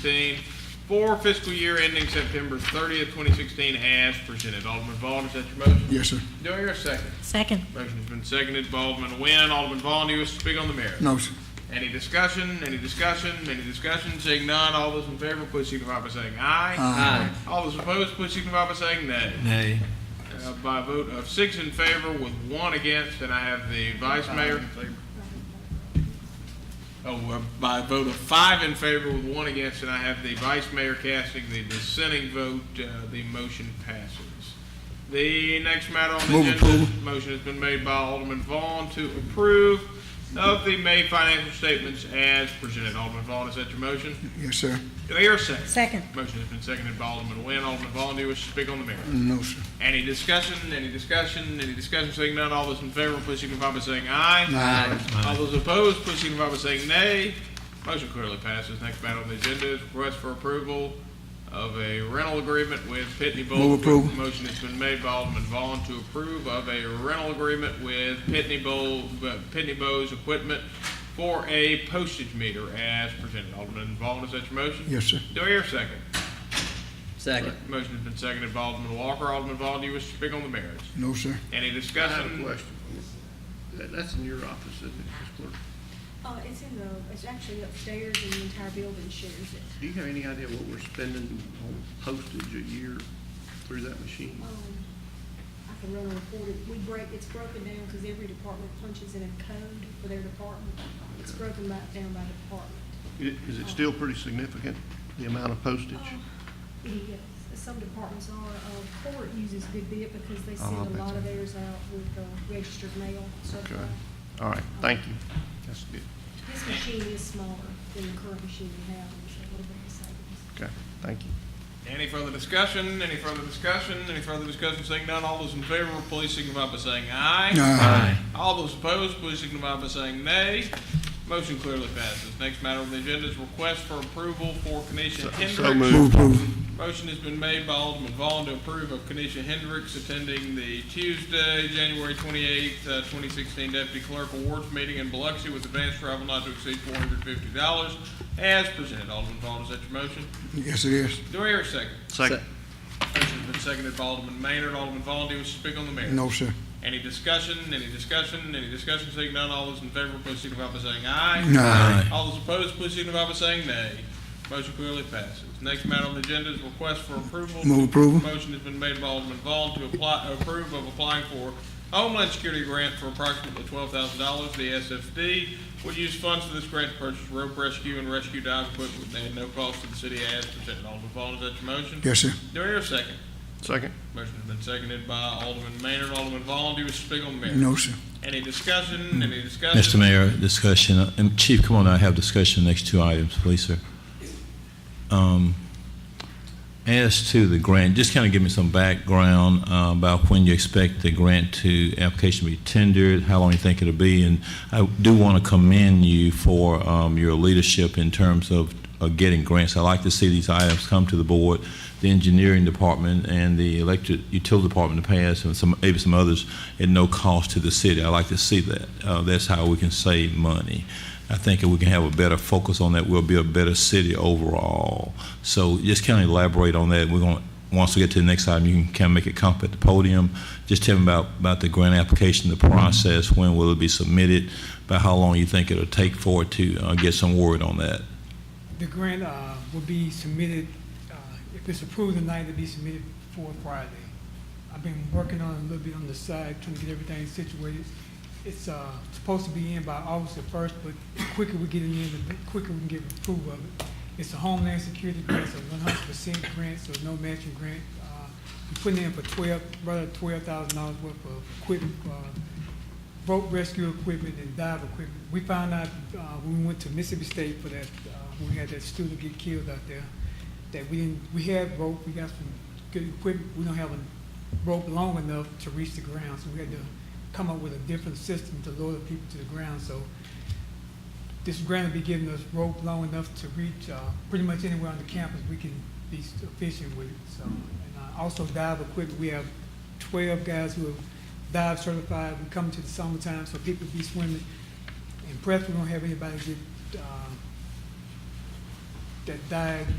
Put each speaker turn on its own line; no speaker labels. sixteen for fiscal year ending September thirtieth, twenty sixteen, as presented. Alderman Vaughn, is that your motion?
Yes, sir.
Do I hear a second?
Second.
Motion's been seconded by Alderman Nguyen. Alderman Vaughn, do you wish to speak on the merits?
No, sir.
Any discussion, any discussion, any discussion, seeing none, all those in favor, please signify by saying aye.
Aye.
All those opposed, please signify by saying nay.
Nay.
Uh, By a vote of six in favor with one against, and I have the vice mayor. Oh, uh, by a vote of five in favor with one against, and I have the vice mayor casting the dissenting vote, uh, the motion passes. The next matter on the
Move
agenda,
approval.
motion has been made by Alderman Vaughn to approve of the May financial statements as presented. Alderman Vaughn, is that your motion?
Yes, sir.
Do I hear a second?
Second.
Motion has been seconded by Alderman Nguyen. Alderman Vaughn, do you wish to speak on the matter?
No, sir.
Any discussion, any discussion, any discussion, seeing none, all those in favor, please signify by saying aye.
Aye.
All those opposed, please signify by saying nay. Motion clearly passes. Next matter on the agenda is request for approval of a rental agreement with Pitney Bowes.
Move approval.
Motion has been made by Alderman Vaughn to approve of a rental agreement with Pitney Bowes, Pitney Bowes Equipment for a postage meter as presented. Alderman Vaughn, is that your motion?
Yes, sir.
Do I hear a second?
Second.
Motion has been seconded by Alderman Walker. Alderman Vaughn, do you wish to speak on the merits?
No, sir.
Any
I have a
discussion?
question. That- That's in your office, isn't it, Ms. Clerk?
Uh, it's in the, it's actually upstairs and the entire building shares it.
Do you have any idea what we're spending on postage a year through that machine?
Um, I can run a report, It- we break, it's broken down because every department punches in a code for their department. It's broken back down by department.
I- Is it still pretty significant, the amount of postage?
Oh. Yes, some departments are, uh, court uses a good bit because they send a lot of theirs out with, uh, registered mail, so.
Okay, all right, thank you. That's good,
This machine is smaller than the current machine we have, and it's a little bit of savings.
okay, thank you.
Any further discussion? Any further discussion? Any further discussion? Seeing none, all those in favor, please signify by saying aye.
Aye.
All those opposed, please signify by saying nay. Motion clearly passes. Next matter on the agenda is request for approval for Kenesha
So
Hendricks.
moved.
Move approval.
Motion has been made by Alderman Vaughn to approve of Kenesha Hendricks attending the Tuesday, January twenty-eighth, uh, twenty sixteen Deputy Clerk Awards Meeting in Biloxi with advanced travel not to exceed four hundred fifty dollars as presented. Alderman Vaughn, is that your motion?
Yes, it is.
Do I hear a second?
Second.
Motion's been seconded by Alderman Maynard. Alderman Vaughn, do you wish to speak on the matter?
No, sir.
Any discussion, any discussion, any discussion, seeing none, all those in favor, please signify by saying aye.
Aye.
All those opposed, please signify by saying nay. Motion clearly passes. Next matter on the agenda is request for approval.
Move approval.
Motion has been made by Alderman Vaughn to apply, approve of applying for Homeland Security Grant for approximately twelve thousand dollars. The SFD will use funds for this grant to purchase rope rescue and rescue dive equipment at no cost to the city as presented. Alderman Vaughn, is that your motion?
Yes, sir.
Do I hear a second?
Second.
Motion has been seconded by Alderman Maynard. Alderman Vaughn, do you wish to speak on the matter?
No, sir.
Any discussion? Any discussion?
Mr. Mayor, discussion, uh, and Chief, come on, I have discussion, next two items, please, sir. Um, As to the grant, just kind of give me some background uh, about when you expect the grant to, application to be tendered, how long you think it'll be, and I do want to commend you for um, your leadership in terms of uh, getting grants. I like to see these items come to the board, the engineering department and the electric utility department to pass, and some, maybe some others, at no cost to the city. I like to see that. Uh, That's how we can save money. I think if we can have a better focus on that, we'll be a better city overall. So just kind of elaborate on that. We're going, once we get to the next item, you can kind of make it come up at the podium. Just tell them about, about the grant application, the process, when will it be submitted, about how long you think it'll take for it to uh, get some word on that.
The grant uh, will be submitted, uh, if it's approved tonight, it'll be submitted for Friday. I've been working on it a little bit on the side, trying to get everything situated. It's uh, supposed to be in by August the first, but the quicker we get it in, the quicker we can get approval of it. It's a Homeland Security grant, so one hundred percent grant, so no matching grant. Uh, We're putting in for twelve, rather twelve thousand dollars worth of equipment, uh, rope rescue equipment and dive equipment. We found out, uh, when we went to Mississippi State for that, uh, when we had that student get killed out there, that we didn't, we had rope, we got some good equipment, we don't have a rope long enough to reach the ground, so we had to come up with a different system to lower the people to the ground, so this grant will be giving us rope long enough to reach, uh, pretty much anywhere on the campus, we can be efficient with it, so. And uh, also dive equipment, we have twelve guys who are dive certified, we come to the summertime, so people be swimming. In prep, we don't have anybody get, uh, that dive